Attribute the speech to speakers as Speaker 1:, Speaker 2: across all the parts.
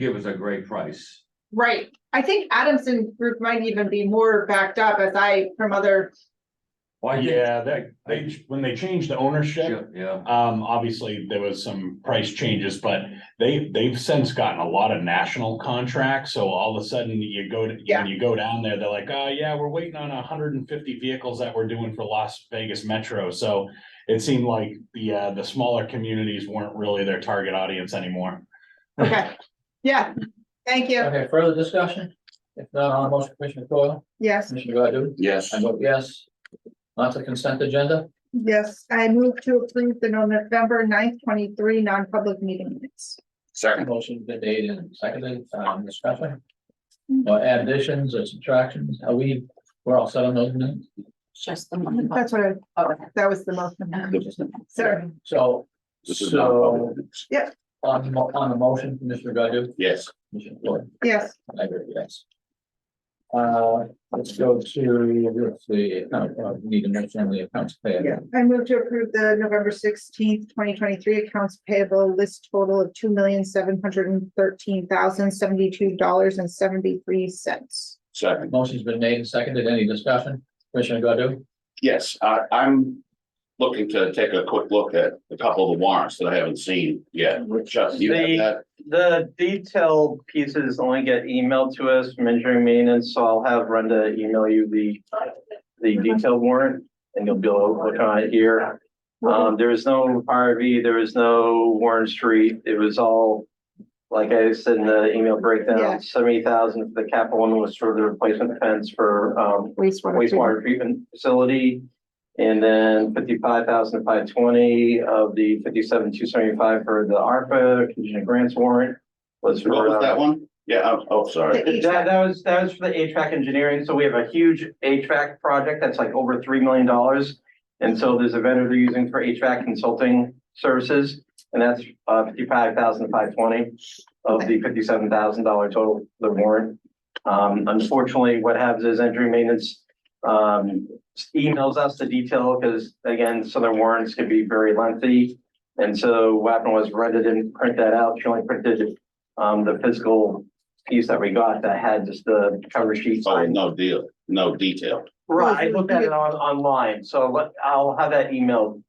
Speaker 1: give us a great price.
Speaker 2: Right, I think Adamson Group might even be more backed up as I from other,
Speaker 1: Well, I think-
Speaker 3: Yeah, that, they, when they changed the ownership,
Speaker 1: Yeah,
Speaker 3: um, obviously there was some price changes, but they, they've since gotten a lot of national contracts. So all of a sudden you go to,
Speaker 2: Yeah.
Speaker 3: when you go down there, they're like, oh yeah, we're waiting on hundred and fifty vehicles that we're doing for Las Vegas Metro. So it seemed like the, uh, the smaller communities weren't really their target audience anymore.
Speaker 2: okay, yeah, thank you,
Speaker 4: Okay, further discussion? If not, on the motion, Commissioner Coyle,
Speaker 2: yes,
Speaker 4: Commissioner Godu?
Speaker 5: Yes.
Speaker 4: I vote yes. On to consent agenda,
Speaker 2: yes, I move to approve the November 9th, twenty-three non-public meeting minutes.
Speaker 5: Second.
Speaker 4: motion been made and seconded, um, discussion. Or additions or subtractions, are we, we're all set on those minutes?
Speaker 6: Just the money.
Speaker 2: That's what I, that was the most, sorry,
Speaker 4: So,
Speaker 5: This is not
Speaker 4: so
Speaker 5: public.
Speaker 4: on, the mo- on the motion, Commissioner Godu?
Speaker 5: Yes.
Speaker 4: Commissioner Coyle?
Speaker 2: yes,
Speaker 4: I agree, yes. Uh, let's go to the, account- uh, we need to mention the accounts
Speaker 2: yeah,
Speaker 4: payable.
Speaker 2: I move to approve the November sixteenth, twenty twenty-three accounts payable list total of two million, seven hundred and thirteen thousand, seventy-two dollars and seventy-three cents.
Speaker 5: Second.
Speaker 4: Motion's been made and seconded, any discussion? Commissioner Godu?
Speaker 5: Yes, I, I'm looking to take a quick look at a couple of the warrants that I haven't seen yet. Chuck, you have
Speaker 7: They-
Speaker 5: that?
Speaker 7: The detailed pieces only get emailed to us from engineering maintenance, so I'll have Brenda email you the, the detailed warrant. And you'll be able to look on it here. Um, there is no RV, there is no Warren Street. It was all, like I said in the email
Speaker 2: Yeah.
Speaker 7: breakdown, seventy thousand for the capital one was for the replacement fence for, um,
Speaker 2: Wastewater.
Speaker 7: wastewater treatment facility. And then fifty-five thousand five twenty of the fifty-seven two seventy-five for the ARPA contingent grants warrant was for.
Speaker 5: What was that
Speaker 7: uh,
Speaker 5: one? Yeah, oh, oh, sorry.
Speaker 2: The
Speaker 7: That, that was, that was for the HVAC engineering. So we have a huge HVAC project that's like over three million dollars. And so there's a vendor they're using for HVAC consulting services, and that's uh fifty-five thousand five twenty of the fifty-seven thousand dollar total, the warrant. Um, unfortunately, what happens is engineering maintenance um emails us the detail because again, some of the warrants can be very lengthy. And so what happened was Brenda didn't print that out. She only printed um the physical piece that we got that had just the cover sheet.
Speaker 5: Oh, no deal, no detail.
Speaker 7: Right, I looked at it on online, so let- I'll have that emailed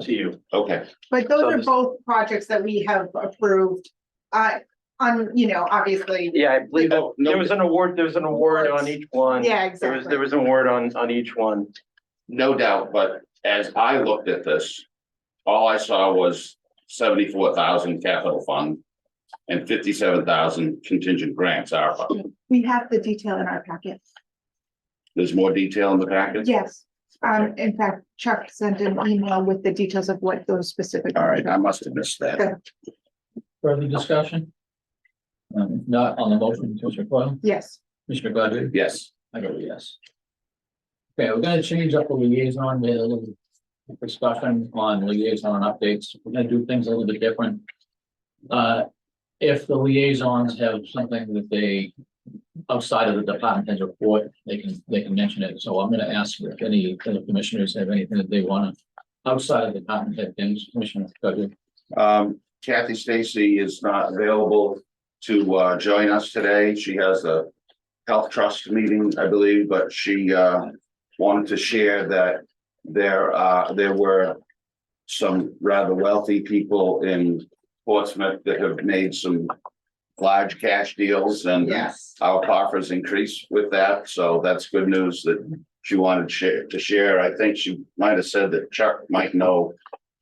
Speaker 7: to you.
Speaker 5: Okay,
Speaker 2: But those
Speaker 7: So
Speaker 2: are
Speaker 7: this-
Speaker 2: both projects that we have approved, uh, on, you know, obviously,
Speaker 7: Yeah, I believe that-
Speaker 5: Oh, no.
Speaker 7: there was an award, there was an award on each one.
Speaker 2: yeah,
Speaker 7: There was,
Speaker 2: exactly.
Speaker 7: there was an award on on each one.
Speaker 5: no doubt, but as I looked at this, all I saw was seventy-four thousand capital fund and fifty-seven thousand contingent grants, ARPA.
Speaker 2: We have the detail in our packet,
Speaker 5: There's more detail in the package?
Speaker 2: yes. Um, in fact, Chuck sent an email with the details of what those specific.
Speaker 5: All right, I must have missed that.
Speaker 4: Further discussion? Um, not on the motion, Commissioner Coyle,
Speaker 2: Yes,
Speaker 4: Commissioner Godu?
Speaker 5: Yes,
Speaker 4: I vote yes. Okay, we're gonna change up the liaison, we had a little discussion on liaison updates, we're gonna do things a little bit different. Uh, if the liaisons have something that they, outside of the department head's report, they can, they can mention it, so I'm gonna ask if any of the commissioners have anything that they wanna. Outside of the department head, things, Commissioner Godu,
Speaker 5: um, Kathy Stacy is not available to, uh, join us today. She has a health trust meeting, I believe, but she, uh, wanted to share that there, uh, there were some rather wealthy people in Portsmouth that have made some large cash deals and
Speaker 2: yes,
Speaker 5: our coffers increase with that, so that's good news that she wanted share- to share. I think she might have said that Chuck might know.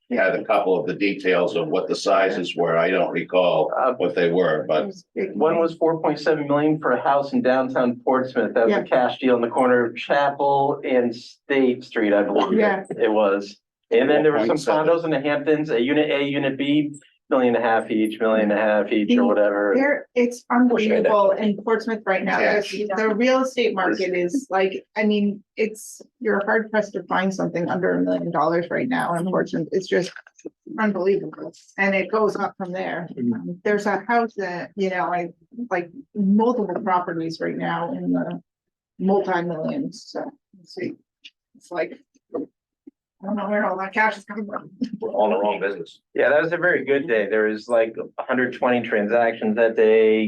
Speaker 5: He had a couple of the details of what the sizes were. I don't recall
Speaker 7: Uh,
Speaker 5: what they were, but
Speaker 7: One was four point seven million for a house in downtown Portsmouth. That was
Speaker 2: Yeah.
Speaker 7: a cash deal on the corner of Chapel and State Street, I believe.
Speaker 2: Yeah.
Speaker 7: It was. And then there were some
Speaker 5: 4.7.
Speaker 7: condos in the Hamptons, a unit A, unit B, million and a half each, million and a half each
Speaker 2: The-
Speaker 7: or whatever.
Speaker 2: There, it's unbelievable in Portsmouth right now, the, the real estate market is like, I mean, it's, you're hard pressed to find something under a million dollars right now, unfortunately, it's just unbelievable, and it goes up from there. Um, There's a house that, you know, I, like, multiple properties right now in the multi-millions, so, let's see, it's like, I don't know where all that cash is coming from.
Speaker 5: we're all in the wrong business.
Speaker 7: Yeah, that was a very good day. There was like hundred twenty transactions that day.